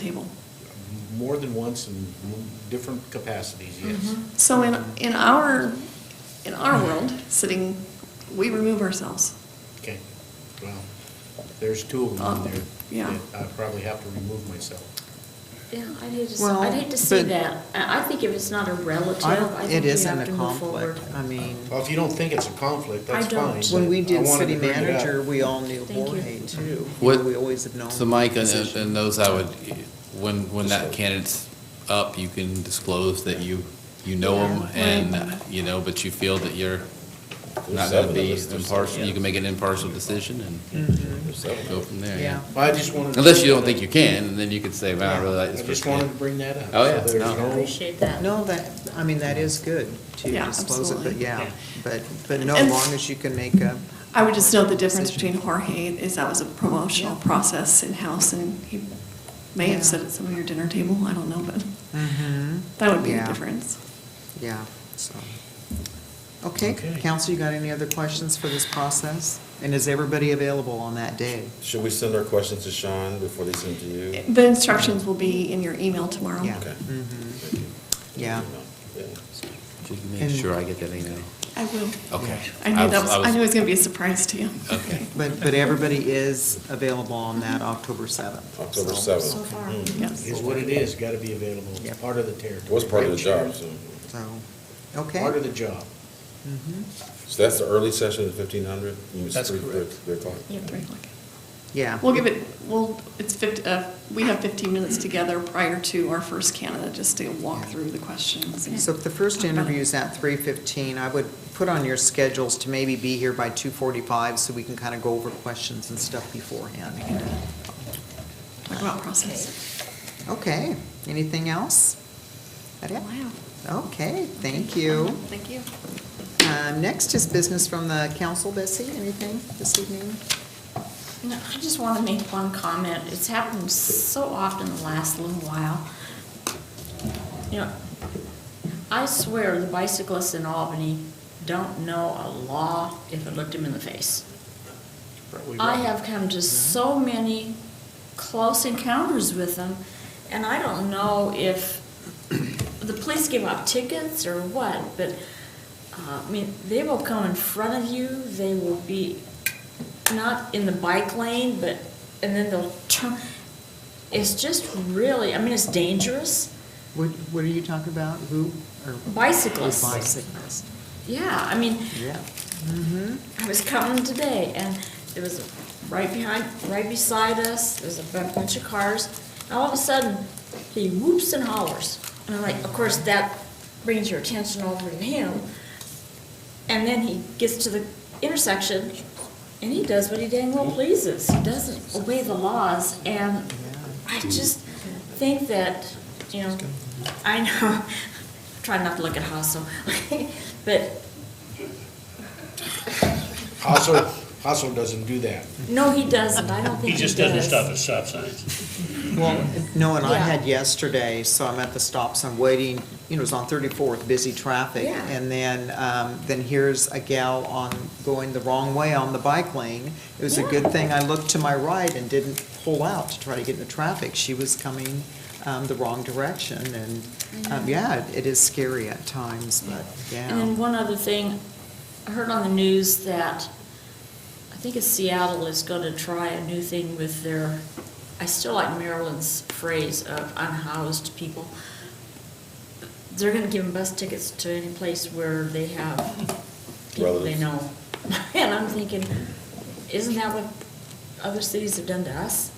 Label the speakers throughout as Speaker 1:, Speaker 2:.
Speaker 1: table.
Speaker 2: More than once in different capacities, yes.
Speaker 3: Mm-hmm.
Speaker 1: So in, in our, in our world, sitting, we remove ourselves.
Speaker 2: Okay, well, there's two of them in
Speaker 1: Oh,
Speaker 2: there.
Speaker 1: yeah.
Speaker 2: that I probably have to remove myself.
Speaker 3: Yeah, I'd hate to, s-
Speaker 4: Well,
Speaker 3: I'd hate to see
Speaker 4: but-
Speaker 3: that. I, I think if it's not a relative,
Speaker 4: I don't,
Speaker 3: I
Speaker 4: it
Speaker 3: think you
Speaker 4: isn't
Speaker 3: have
Speaker 4: a
Speaker 3: to move forward.
Speaker 4: conflict, I mean,
Speaker 2: Well, if you don't think it's a conflict,
Speaker 3: I
Speaker 2: that's
Speaker 3: don't.
Speaker 2: fine.
Speaker 4: when we
Speaker 2: but I
Speaker 4: did
Speaker 2: wanted
Speaker 4: city
Speaker 2: to bring it up.
Speaker 4: manager, we all knew
Speaker 3: Thank you.
Speaker 4: Jorge too.
Speaker 5: What-
Speaker 4: We always have known.
Speaker 5: So Mike, and,
Speaker 4: position.
Speaker 5: and those I would, when, when that candidate's up, you can disclose that you, you know them
Speaker 1: Yeah.
Speaker 5: and, you know, but you feel that you're not
Speaker 6: There's
Speaker 5: gonna
Speaker 6: seven
Speaker 5: be
Speaker 6: of us, there's
Speaker 5: impartial,
Speaker 6: seven.
Speaker 5: you can make an impartial decision
Speaker 2: Mm.
Speaker 5: and
Speaker 4: Mm-hmm.
Speaker 6: There's seven of
Speaker 5: go
Speaker 6: us.
Speaker 5: from there.
Speaker 4: Yeah.
Speaker 2: Well, I just wanted. to-
Speaker 5: Unless you don't think you can, and then you could say, wow, I really like
Speaker 2: I
Speaker 5: this
Speaker 2: just
Speaker 5: person.
Speaker 2: wanted to bring that up.
Speaker 5: Oh, yeah,
Speaker 2: So there's
Speaker 5: no.
Speaker 2: no-
Speaker 3: Appreciate that.
Speaker 4: No, that, I mean, that is good to
Speaker 1: Yeah,
Speaker 4: disclose it, but
Speaker 1: absolutely.
Speaker 4: yeah,
Speaker 2: Yeah.
Speaker 4: but, but no,
Speaker 1: And-
Speaker 4: long as you can make a.
Speaker 1: I would just note the difference
Speaker 4: decision.
Speaker 1: between Jorge is that was a promotional
Speaker 4: Yeah.
Speaker 1: process in-house and he may
Speaker 4: Yeah.
Speaker 1: have sat at some of your dinner table, I don't know, but
Speaker 4: Mhm.
Speaker 1: that would be the
Speaker 4: Yeah.
Speaker 1: difference.
Speaker 4: Yeah, so. Okay,
Speaker 2: Okay.
Speaker 4: council, you got any other questions for this process? And is everybody available on that day?
Speaker 6: Should we send our questions to Sean before they send to you?
Speaker 1: The instructions will be in your email tomorrow.
Speaker 4: Yeah.
Speaker 6: Okay.
Speaker 4: Mhm.
Speaker 6: Thank you.
Speaker 4: Yeah.
Speaker 6: Yeah.
Speaker 5: Just make
Speaker 4: And-
Speaker 5: sure I get that email.
Speaker 1: I will.
Speaker 5: Okay.
Speaker 1: I knew that was,
Speaker 5: I
Speaker 1: I knew it was gonna be a surprise to you.
Speaker 5: Okay.
Speaker 4: But, but everybody is available on that October 7th. so.
Speaker 6: October seventh.
Speaker 3: So far.
Speaker 6: Mm.
Speaker 1: Yes.
Speaker 2: It's what it is, gotta be available, it's
Speaker 4: Yep.
Speaker 2: part of the territory.
Speaker 6: It was part of the job, so,
Speaker 4: So, okay.
Speaker 2: Part of the job.
Speaker 4: Mhm.
Speaker 6: so that's the early session at fifteen hundred?
Speaker 2: That's correct.
Speaker 6: Three o'clock.
Speaker 3: Yep.
Speaker 1: Three o'clock.
Speaker 4: Yeah.
Speaker 1: We'll give it, well, it's 50, uh, we have 15 minutes together prior to our first candidate, just to walk through the questions. and
Speaker 4: So if the first
Speaker 1: talk about it.
Speaker 4: interview is at three fifteen, I would put on your schedules to maybe be here by two forty-five so we can kind of go over questions and stuff beforehand.
Speaker 1: Talk about process.
Speaker 4: Okay, anything else? That it?
Speaker 1: Wow.
Speaker 4: Okay, thank you.
Speaker 1: Thank you.
Speaker 4: Um, next is business from the council, Bessie, anything this evening?
Speaker 3: No, I just want to make one comment. It's happened so often the last little while. You know, I swear the bicyclists in Albany don't know a law if it looked them in the face.
Speaker 2: Probably
Speaker 3: I
Speaker 2: right.
Speaker 3: have come to so many close encounters with them, and I don't know if the police give out tickets or what, but, uh, I mean, they will come in front of you, they will be not in the bike lane, but, and then they'll turn. It's just really, I mean, it's dangerous.
Speaker 4: What, what are you talking about? Who? or-
Speaker 3: Bicyclists.
Speaker 4: Bicyclists,
Speaker 3: Yeah, I mean,
Speaker 4: yeah. Mm-hmm.
Speaker 3: I was coming today, and there was, a- right behind, right beside us, there was a bu- bunch of cars. And all of a sudden, he whoops and hollers. And I'm like, of course, that brings your attention over to him. And then he gets to the intersection, and he does what he dang well pleases. He doesn't obey the laws, and I just think that, you know, I know, try not to look at Hassel, but
Speaker 2: Hassel, Hassel doesn't do that.
Speaker 3: No, he doesn't. I don't think he
Speaker 7: He
Speaker 3: does.
Speaker 7: just doesn't stop at stop signs.
Speaker 4: Well, no, and I
Speaker 3: Yeah.
Speaker 4: had yesterday, so I'm at the stops, I'm waiting, you know, it was on 34th, busy traffic.
Speaker 3: Yeah.
Speaker 4: And then, um, then here's a gal on, going the wrong way on the bike lane. It was a good
Speaker 3: Yeah.
Speaker 4: thing I looked to my right and didn't pull out to try to get into traffic. She was coming um, the wrong direction, and, um, yeah, it is scary at times, but,
Speaker 3: And then
Speaker 4: yeah.
Speaker 3: one other thing, I heard on the news that, I think it's Seattle is gonna try a new thing with their, I still like Maryland's phrase of unhoused people. They're gonna give them bus tickets to any place where they have people they
Speaker 6: Relatives.
Speaker 3: know. And I'm thinking, isn't that what other cities have done to us?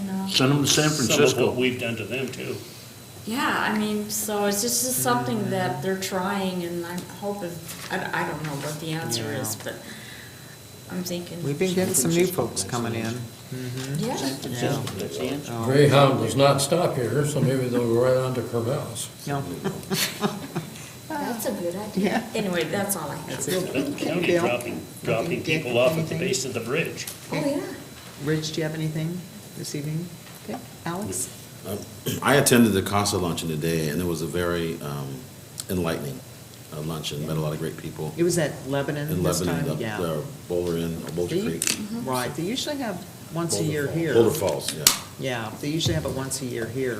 Speaker 3: You know?
Speaker 8: Send them to San
Speaker 7: Some of what
Speaker 8: Francisco.
Speaker 7: we've done to them too.
Speaker 3: Yeah, I mean, so it's just just something that they're trying, and I'm hoping, I, I don't know what the answer is, but I'm thinking.
Speaker 4: We've been getting some new folks coming in. Mhm.
Speaker 3: Yeah,
Speaker 4: Yeah.
Speaker 7: That's the answer.
Speaker 4: Oh,
Speaker 8: Greyhound does not stop here, so maybe they'll go right on to Corvallis.
Speaker 4: No,
Speaker 3: that's a good idea.
Speaker 4: Yeah.
Speaker 3: Anyway, that's all I have.
Speaker 4: that's it.
Speaker 7: Clinton County
Speaker 4: Bill?
Speaker 7: dropping, dropping
Speaker 4: Dick,
Speaker 7: people off at the
Speaker 4: anything?
Speaker 7: base of the bridge.
Speaker 3: Oh, yeah.
Speaker 4: Rich, do you have anything this evening? Okay, Alex?
Speaker 6: I attended the council luncheon today, and it was a very um, enlightening uh, luncheon, met a lot of great people.
Speaker 4: It was at Lebanon
Speaker 6: In
Speaker 4: this
Speaker 6: Lebanon,
Speaker 4: time?
Speaker 6: up
Speaker 4: Yeah.
Speaker 6: there, Boulder Inn, Boulder
Speaker 4: They-
Speaker 6: Creek.
Speaker 4: Right, they usually have once a
Speaker 2: Boulder
Speaker 4: year
Speaker 2: Falls.
Speaker 4: here.
Speaker 6: Boulder Falls, yeah.
Speaker 4: Yeah, they usually have it once a year here.